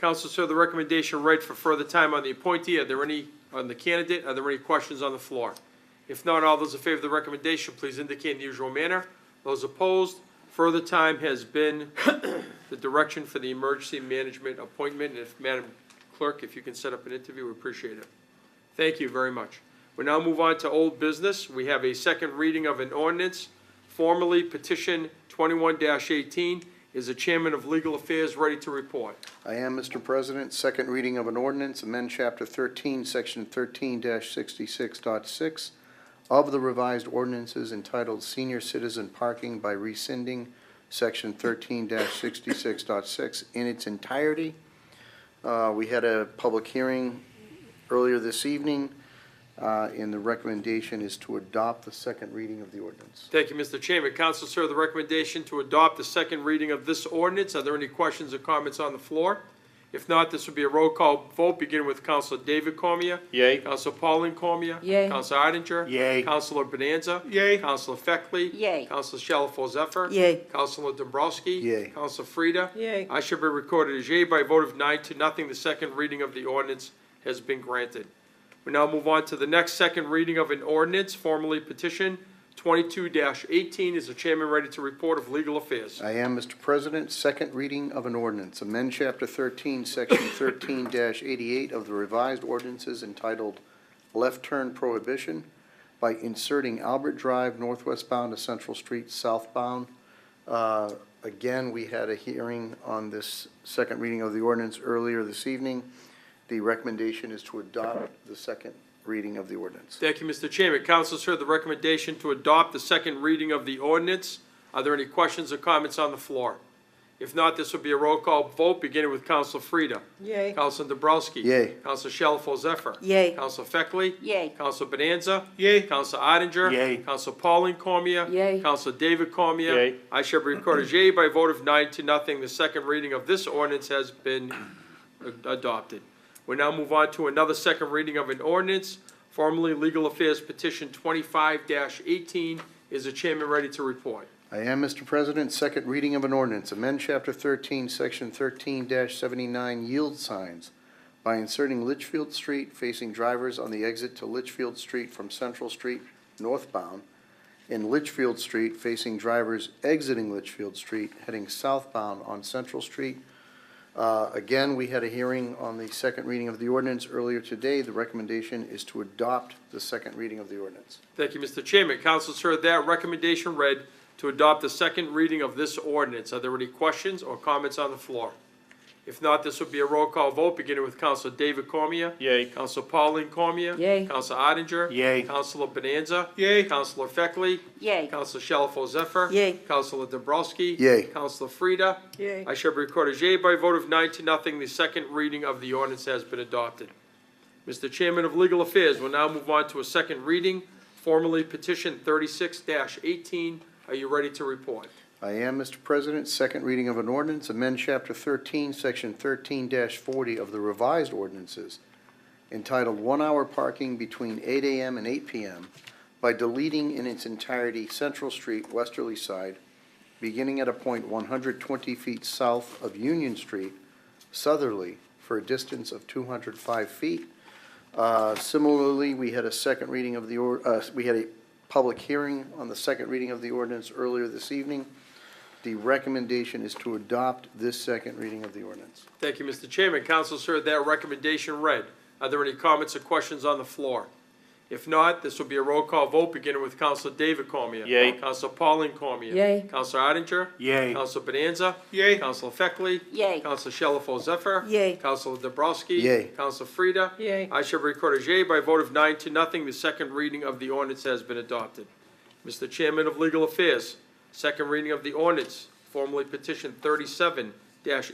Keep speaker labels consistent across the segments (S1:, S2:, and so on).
S1: Counsel, sir, the recommendation read for further time on the appointee. Are there any, on the candidate, are there any questions on the floor? If not, all those in favor of the recommendation, please indicate in the usual manner. Those opposed, further time has been the direction for the emergency management appointment. And if, Madam Clerk, if you can set up an interview, we appreciate it. Thank you very much. We now move on to old business. We have a second reading of an ordinance, formally petition 21-18. Is the Chairman of Legal Affairs ready to report?
S2: I am, Mr. President. Second reading of an ordinance, amend Chapter 13, Section 13-66.6 of the revised ordinances entitled Senior Citizen Parking by rescinding Section 13-66.6 in its entirety. Uh, We had a public hearing earlier this evening, uh, and the recommendation is to adopt the second reading of the ordinance.
S1: Thank you, Mr. Chairman. Council, sir, the recommendation to adopt the second reading of this ordinance. Are there any questions or comments on the floor? If not, this would be a roll call vote, beginning with Council David Cormier.
S2: Yay.
S1: Council Pauline Cormier.
S3: Yay.
S1: Council Odinger.
S2: Yay.
S1: Councilor Bonanza. Yay. Councilor Feckley.
S3: Yay.
S1: Council Shalfo Zephyr.
S3: Yay.
S1: Councilor Dombrowski.
S2: Yay.
S1: Council Frida.
S3: Yay.
S1: I should be recorded as yay by a vote of nine to nothing. The second reading of the ordinance has been granted. We now move on to the next second reading of an ordinance, formally petition 22-18. Is the chairman ready to report of legal affairs?
S2: I am, Mr. President. Second reading of an ordinance, amend Chapter 13, Section 13-88 of the revised ordinances entitled Left Turn Prohibition by inserting Albert Drive northwestbound to Central Street southbound. Uh, Again, we had a hearing on this second reading of the ordinance earlier this evening. The recommendation is to adopt the second reading of the ordinance.
S1: Thank you, Mr. Chairman. Council heard the recommendation to adopt the second reading of the ordinance. Are there any questions or comments on the floor? If not, this will be a roll call vote, beginning with Council Frida.
S3: Yay.
S1: Council Dobrowski.
S2: Yay.
S1: Council Shalfo Zephyr.
S3: Yay.
S1: Council Feckley.
S3: Yay.
S1: Council Bonanza. Yay. Council Odinger.
S2: Yay.
S1: Council Pauline Cormier.
S3: Yay.
S1: Council David Cormier.
S2: Yay.
S1: I shall be recorded as yay by a vote of nine to nothing. The second reading of this ordinance has been ad- adopted. We now move on to another second reading of an ordinance, formerly Legal Affairs Petition twenty-five eighteen. Is the chairman ready to report?
S2: I am, Mr. President. Second reading of an ordinance, amend Chapter 13, Section 13-79 yield signs by inserting Litchfield Street facing drivers on the exit to Litchfield Street from Central Street northbound and Litchfield Street facing drivers exiting Litchfield Street heading southbound on Central Street. Uh, Again, we had a hearing on the second reading of the ordinance earlier today. The recommendation is to adopt the second reading of the ordinance.
S1: Thank you, Mr. Chairman. Councilors heard that recommendation read to adopt the second reading of this ordinance. Are there any questions or comments on the floor? If not, this will be a roll call vote, beginning with Council David Cormier. Yay. Council Pauline Cormier.
S3: Yay.
S1: Council Odinger.
S2: Yay.
S1: Councilor Bonanza. Yay. Councilor Feckley.
S3: Yay.
S1: Councilor Shalfo Zephyr.
S3: Yay.
S1: Councilor Dobrowski.
S2: Yay.
S1: Councilor Frida.
S3: Yay.
S1: I shall be recorded as yea by a vote of nine to nothing. The second reading of the ordinance has been adopted. Mr. Chairman of Legal Affairs, we'll now move on to a second reading, formally petition thirty-six eighteen. Are you ready to report?
S2: I am, Mr. President. Second reading of an ordinance, amend Chapter 13, Section 13-40 of the revised ordinances entitled One Hour Parking Between 8 AM and 8 PM by deleting in its entirety Central Street, Westerly Side, beginning at a point 120 feet south of Union Street, southerly, for a distance of 205 feet. Uh, Similarly, we had a second reading of the, or- uh, we had a public hearing on the second reading of the ordinance earlier this evening. The recommendation is to adopt this second reading of the ordinance.
S1: Thank you, Mr. Chairman. Council heard that recommendation read. Are there any comments or questions on the floor? If not, this will be a roll call vote, beginning with Council David Cormier.
S4: Yay.
S1: Council Pauline Cormier.
S3: Yay.
S1: Council Odinger.
S4: Yay.
S1: Council Bonanza. Yay. Council Feckley.
S3: Yay.
S1: Council Shalfo Zephyr.
S3: Yay.
S1: Council Dobrowski.
S2: Yay.
S1: Council Frida.
S3: Yay.
S1: I shall record as yay by a vote of nine to nothing. The second reading of the ordinance has been adopted. Mr. Chairman of Legal Affairs, second reading of the ordinance, formally petition thirty-seven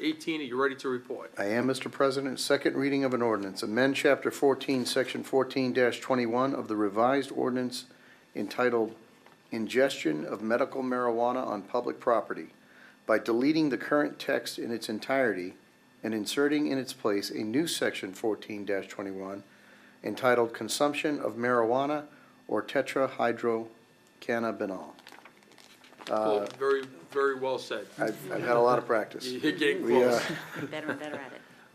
S1: eighteen. Are you ready to report?
S2: I am, Mr. President. Second reading of an ordinance, amend Chapter 14, Section 14-21 of the revised ordinance entitled Ingestion of Medical Marijuana on Public Property by deleting the current text in its entirety and inserting in its place a new Section 14-21 entitled Consumption of Marijuana or Tetrahydrocannabinol. Uh,
S1: Well, Very, very well said.
S2: I've I've had a lot of practice.
S1: You're getting
S2: We, uh,
S1: close.
S3: Better and better at it.